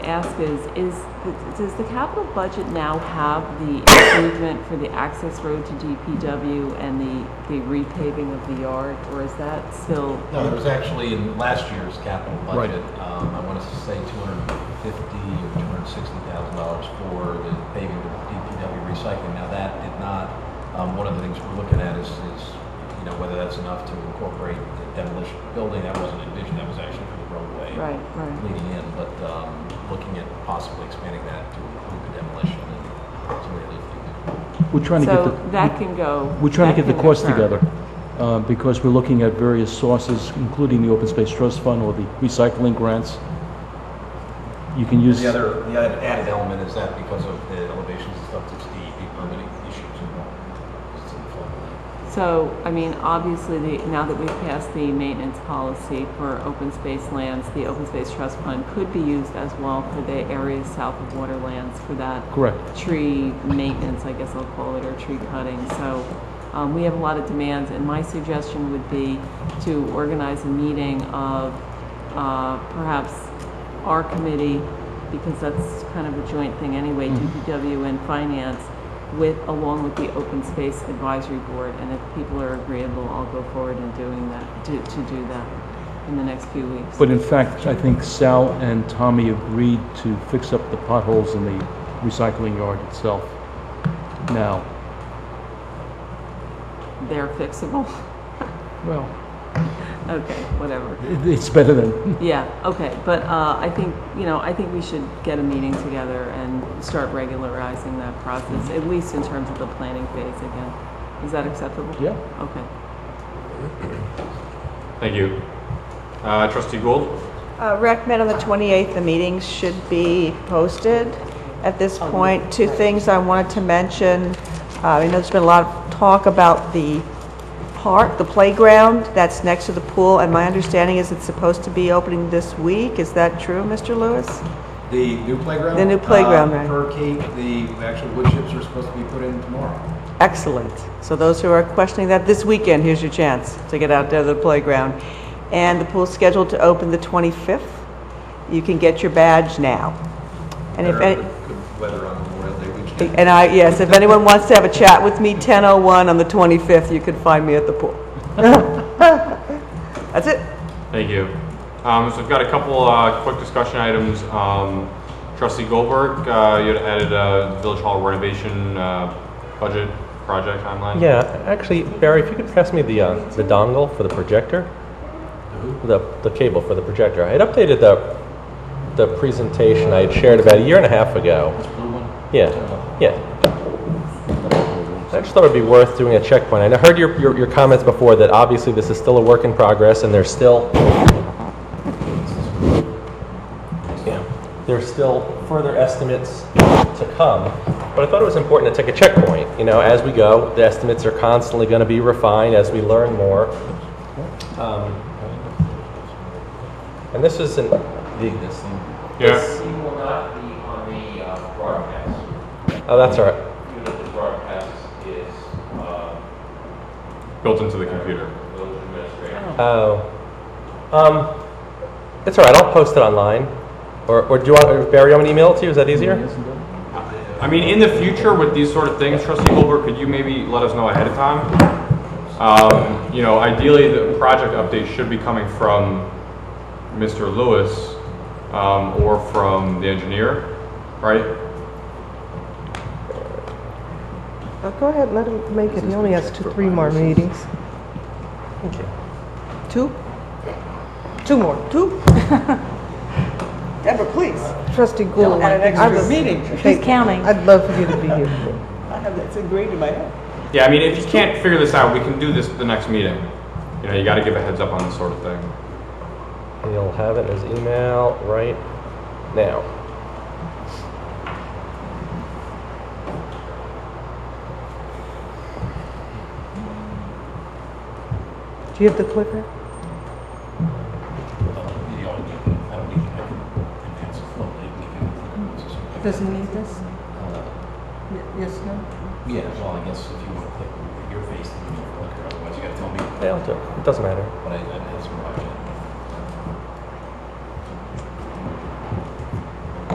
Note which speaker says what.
Speaker 1: ask is, is, does the capital budget now have the improvement for the access road to DPW and the, the repaving of the yard, or is that still?
Speaker 2: No, there was actually in last year's capital
Speaker 3: Right.
Speaker 2: budget, um, I want to say two hundred and fifty or two hundred and sixty thousand dollars for the paving of DPW recycling. Now, that did not, um, one of the things we're looking at is, is, you know, whether that's enough to incorporate the demolition of the building. That wasn't envisioned, that was actually for the roadway.
Speaker 1: Right, right.
Speaker 2: Leading in, but, um, looking at possibly expanding that to include the demolition and some of the other things.
Speaker 3: We're trying to get the...
Speaker 1: So that can go.
Speaker 3: We're trying to
Speaker 1: that
Speaker 3: get the
Speaker 1: can
Speaker 3: costs
Speaker 1: occur.
Speaker 3: together, uh, because we're looking at various sources, including the Open Space Trust Fund or the recycling grants. You can use,
Speaker 2: The other, the other added element is that because of the elevations and stuff, there's DEP permitting issues involved. It's in the floodplain.
Speaker 1: So, I mean, obviously, the, now that we've passed the maintenance policy for open space lands, the open space trust fund could be used as well for the areas south of Waterlands for that
Speaker 3: correct.
Speaker 1: tree maintenance, I guess I'll call it, or tree cutting. So um, we have a lot of demands, and my suggestion would be to organize a meeting of uh, perhaps our committee, because that's kind of a joint thing anyway,
Speaker 3: Mm-hmm.
Speaker 1: DPW and finance, with, along with the Open Space Advisory Board. And if people are agreeable, I'll go forward in doing that, to to do that in the next few weeks.
Speaker 3: But in fact, I think Sal and Tommy agreed to fix up the potholes in the recycling yard itself now.
Speaker 1: They're fixable.
Speaker 3: Well,
Speaker 1: Okay, whatever.
Speaker 3: it- it's better than,
Speaker 1: Yeah, okay, but uh, I think, you know, I think we should get a meeting together and start regularizing that process, at least in terms of the planning phase again. Is that acceptable?
Speaker 3: yeah.
Speaker 1: Okay.
Speaker 4: Thank you. Uh, Trustee Gould?
Speaker 5: Uh, Rec Med on the 28th, the meetings should be posted. At this point, two things I wanted to mention. Uh, I know there's been a lot of talk about the park, the playground that's next to the pool, and my understanding is it's supposed to be opening this week. Is that true, Mr. Lewis?
Speaker 2: The new playground?
Speaker 5: The new playground,
Speaker 2: uh,
Speaker 5: right.
Speaker 2: Per Kate, the actual wood chips are supposed to be put in tomorrow.
Speaker 5: Excellent. So those who are questioning that, this weekend, here's your chance to get out there to the playground. And the pool's scheduled to open the 25th. You can get your badge now. And if
Speaker 2: Better
Speaker 5: any-
Speaker 2: Good weather on Memorial Day weekend.
Speaker 5: And I, yes, if anyone wants to have a chat with me, 10:01 on the 25th, you can find me at the pool. That's it.
Speaker 4: Thank you. Um, so we've got a couple uh, quick discussion items. Um, Trustee Goldberg, uh, you had added a village hall renovation uh, budget project timeline.
Speaker 6: Yeah, actually, Barry, if you could pass me the uh, the dongle for the projector, the the cable for the projector. I had updated the the presentation I had shared about a year and a half ago. Yeah, yeah. I just thought it'd be worth doing a checkpoint. And I heard your, your your comments before that obviously this is still a work in progress, and there's still yeah, there's still further estimates to come. But I thought it was important to take a checkpoint. You know, as we go, the estimates are constantly going to be refined as we learn more. Um, and this isn't the.
Speaker 4: Yeah.
Speaker 7: He will not be on the uh, broadcast.
Speaker 6: Oh, that's all right.
Speaker 7: Even if the broadcast is, uh,
Speaker 4: Built into the computer.
Speaker 7: village administrator.
Speaker 6: Oh, um, it's all right. I'll post it online, or, or do you want or Barry? I'm gonna email it to you. Is that easier?
Speaker 4: I mean, in the future with these sort of things, Trustee Goldberg, could you maybe let us know ahead of time? Um, you know, ideally, the project update should be coming from Mr. Lewis um, or from the engineer, right?
Speaker 8: Go ahead, let him make it, he only has two, three more meetings.
Speaker 6: Okay.
Speaker 5: Two?
Speaker 8: Two more.
Speaker 5: Two? Deborah, please.
Speaker 8: Trustee Gould.
Speaker 5: At an extra
Speaker 8: I'd-
Speaker 5: meeting.
Speaker 8: She's counting. I'd love for you to be here.
Speaker 5: I have that ingrained in my head.
Speaker 4: Yeah, I mean, if you can't figure this out, we can do this at the next meeting. You know, you got to give a heads up on this sort of thing.
Speaker 6: And you'll have it as email right now.
Speaker 8: Do you have the clicker?
Speaker 2: Uh,
Speaker 8: Does he need this?
Speaker 5: Uh,
Speaker 8: Yes, no?
Speaker 2: Yeah, well, I guess if you want to click your face, then you can click, otherwise you gotta tell me,
Speaker 6: Yeah, I'll do it. It doesn't matter.
Speaker 2: but I, I have some project.